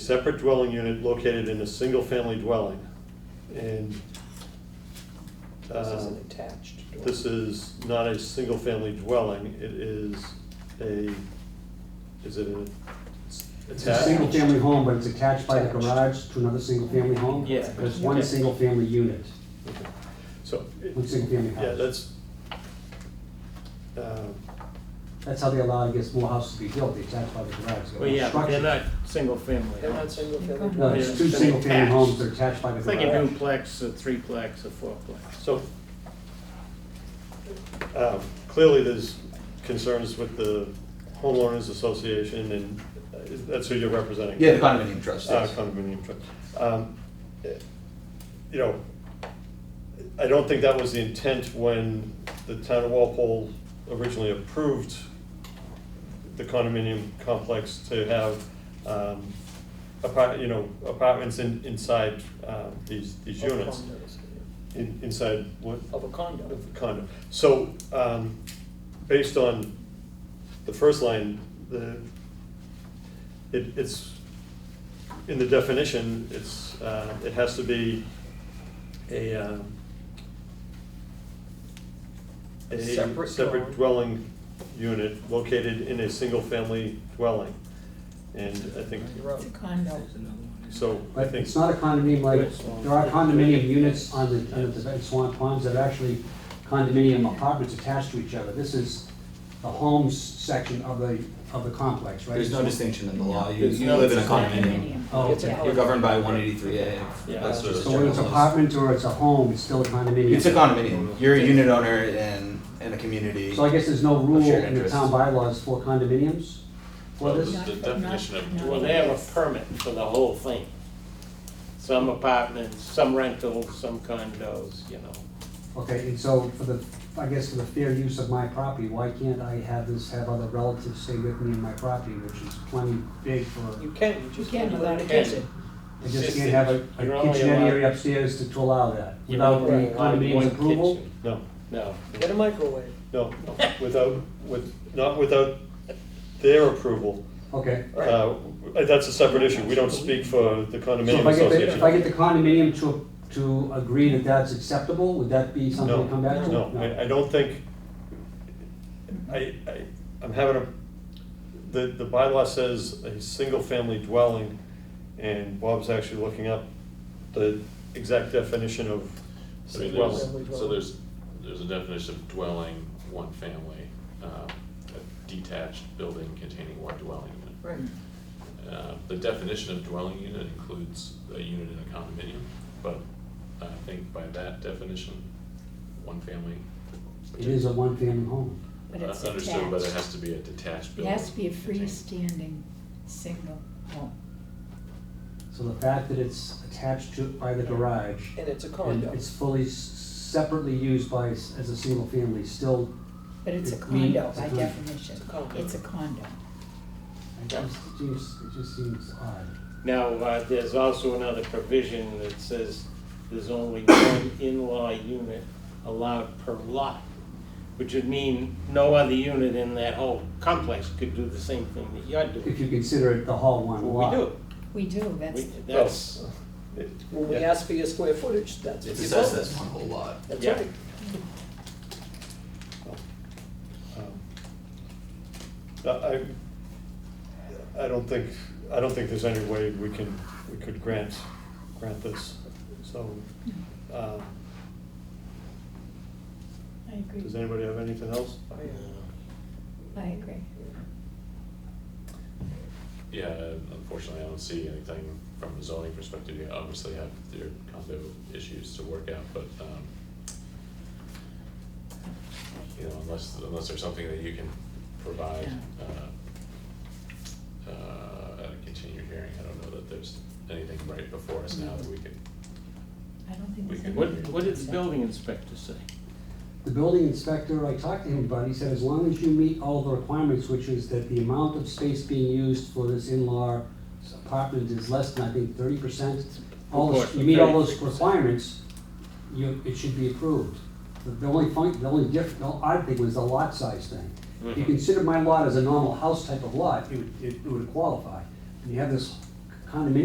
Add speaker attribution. Speaker 1: separate dwelling unit located in a single-family dwelling. And
Speaker 2: This is
Speaker 1: uh,
Speaker 2: an attached door.
Speaker 1: this is not a single-family dwelling, it is a, is it an
Speaker 3: It's a
Speaker 1: attached?
Speaker 3: single-family home, but it's attached by the garage to another single-family home?
Speaker 2: Yeah.
Speaker 3: But It's one single-family unit,
Speaker 1: Okay. So, it-
Speaker 3: one single-family
Speaker 1: yeah,
Speaker 3: house.
Speaker 1: that's, um,
Speaker 3: That's how they allow, I guess, more houses to be built, they attach by the garage.
Speaker 4: Well, yeah, but they're
Speaker 3: Structure.
Speaker 4: not single family.
Speaker 2: They're not single family.
Speaker 3: No, it's
Speaker 4: they're-
Speaker 3: two
Speaker 4: they're
Speaker 3: single-family
Speaker 4: attached.
Speaker 3: homes that are attached by the
Speaker 4: It's like a
Speaker 3: garage.
Speaker 4: duplex, a threeplex, a fourplex.
Speaker 1: so um, clearly there's concerns with the homeowners association and uh, that's who you're representing.
Speaker 5: Yeah, the condominium trust,
Speaker 1: Uh,
Speaker 5: yes.
Speaker 1: condominium trust. Um, eh, You know, I don't think that was the intent when the town of Walpole originally approved the condominium complex to have, um, apart, you know, apartments in, inside, um, these, these
Speaker 2: Of
Speaker 1: units.
Speaker 2: condos, yeah.
Speaker 1: In, inside what?
Speaker 2: Of a condo.
Speaker 1: of the condo. So, um, based on the first line, the, it, it's, in the definition, it's, uh, it has to be a, um,
Speaker 2: A
Speaker 1: a
Speaker 2: separate
Speaker 1: separate
Speaker 2: dwelling.
Speaker 1: dwelling unit located in a single-family dwelling. And I think,
Speaker 2: You're up.
Speaker 6: It's a condo.
Speaker 1: so I
Speaker 3: But
Speaker 1: think,
Speaker 3: it's not a condominium like, there are condominium units on the, on the Swan Ponds that are actually condominium apartments attached to each other. This is the homes section of the, of the complex, right?
Speaker 5: There's no
Speaker 3: It's-
Speaker 5: distinction in the law, you,
Speaker 4: There's
Speaker 5: you
Speaker 4: no
Speaker 5: live in a
Speaker 6: Condominium.
Speaker 5: condominium.
Speaker 3: Oh,
Speaker 2: It's
Speaker 3: okay.
Speaker 2: a-
Speaker 5: You're governed by one eighty-three A.
Speaker 2: Yeah.
Speaker 5: That's just
Speaker 3: So whether it's
Speaker 5: general laws.
Speaker 3: apartment or it's a home, it's still a condominium.
Speaker 5: It's a condominium, you're a unit owner in, in a community.
Speaker 3: So I guess there's no rule
Speaker 5: shared
Speaker 3: in the
Speaker 5: interest.
Speaker 3: town bylaws for condominiums for this?
Speaker 6: Not- not- not-
Speaker 4: Well, they have a permit for the whole thing. Some apartments, some rentals, some condos, you know.
Speaker 3: Okay, and so for the, I guess for the fair use of my property, why can't I have this, have other relatives stay with me in my property, which is plenty big for,
Speaker 2: You can, you just
Speaker 6: You can
Speaker 2: can't allow
Speaker 6: without
Speaker 2: a
Speaker 6: a
Speaker 2: kitchen.
Speaker 6: kitchen.
Speaker 3: I just
Speaker 4: It's
Speaker 3: can't
Speaker 4: just-
Speaker 3: have a
Speaker 4: you're
Speaker 3: a
Speaker 4: only
Speaker 3: kitchen area
Speaker 4: allowed-
Speaker 3: upstairs to to allow that,
Speaker 4: You
Speaker 3: without the
Speaker 4: don't allow one
Speaker 3: condominium's approval?
Speaker 4: kitchen.
Speaker 1: no,
Speaker 4: No,
Speaker 2: Get a microwave.
Speaker 1: no, without, with, not without their approval.
Speaker 3: Okay,
Speaker 1: Uh, That's a separate issue, we don't speak for the
Speaker 3: so
Speaker 1: condominium
Speaker 3: if I get, the- if I
Speaker 1: association.
Speaker 3: get the condominium to, to agree that that's acceptable, would that be something
Speaker 1: No,
Speaker 3: to come back to?
Speaker 1: No, I, I don't think, I, I, I'm having a, the, the bylaw says a single-family dwelling, and Bob's actually looking up the exact definition of
Speaker 7: I mean,
Speaker 1: dwelling.
Speaker 7: there's, so there's, there's a definition of dwelling, one family, um, a detached building containing one dwelling unit.
Speaker 2: Right.
Speaker 7: Uh, The definition of dwelling unit includes a unit in a condominium, but I think by that definition, one family.
Speaker 3: It is a one-family home.
Speaker 6: But it's
Speaker 7: uh, Understood, but it
Speaker 6: attached.
Speaker 7: has to be a detached
Speaker 6: It
Speaker 7: building.
Speaker 6: has to be a
Speaker 7: containing-
Speaker 6: freestanding, single home.
Speaker 3: So the fact that it's attached to, by the garage,
Speaker 2: And it's a
Speaker 3: and
Speaker 2: condo.
Speaker 3: it's fully s- separately used by, s- as a single family, still,
Speaker 6: But it's a
Speaker 3: It means-
Speaker 6: condo by
Speaker 3: it's a-
Speaker 6: definition.
Speaker 2: It's a condo.
Speaker 6: It's a condo.
Speaker 3: it just seems, it just seems odd.
Speaker 4: now, uh, there's also another provision that says there's only one in-law unit allowed per lot, which would mean no other unit in that whole complex could do the same thing that you're
Speaker 3: If
Speaker 4: doing.
Speaker 3: you consider it the whole one
Speaker 4: We
Speaker 3: lot.
Speaker 4: do,
Speaker 6: We do,
Speaker 4: we,
Speaker 6: that's,
Speaker 4: that's.
Speaker 1: It-
Speaker 2: When we
Speaker 1: yeah.
Speaker 2: ask for your square footage, that's what
Speaker 5: It's
Speaker 2: you
Speaker 5: assessed
Speaker 2: vote.
Speaker 5: as one whole lot.
Speaker 2: That's
Speaker 4: Yeah.
Speaker 2: right.
Speaker 1: Um, I, I don't think, I don't think there's any way we can, we could grant, grant this, so. um,
Speaker 6: I agree,
Speaker 1: Does anybody have anything else?
Speaker 2: Oh, yeah.
Speaker 6: I agree.
Speaker 7: Yeah, unfortunately, I don't see anything from a zoning perspective, you obviously have your condo issues to work out, but, um, you know, unless, unless there's something that you can provide, uh, uh, at a continued hearing, I don't know that there's anything right before us now that we could,
Speaker 6: I don't think
Speaker 7: We
Speaker 6: there's
Speaker 7: can-
Speaker 6: any.
Speaker 4: What, what did the building inspector say?
Speaker 3: The building inspector, I talked to him about, he said, as long as you meet all the requirements, which is that the amount of space being used for this in-law apartment is less than, I think, thirty percent. All, the- you meet all those requirements, you, it should be approved. The- The only fun, the only diff, the odd thing was the lot size thing. If you
Speaker 4: Mhm.
Speaker 3: consider my lot as a normal house type of lot, it would, it it would qualify. And you have this condominium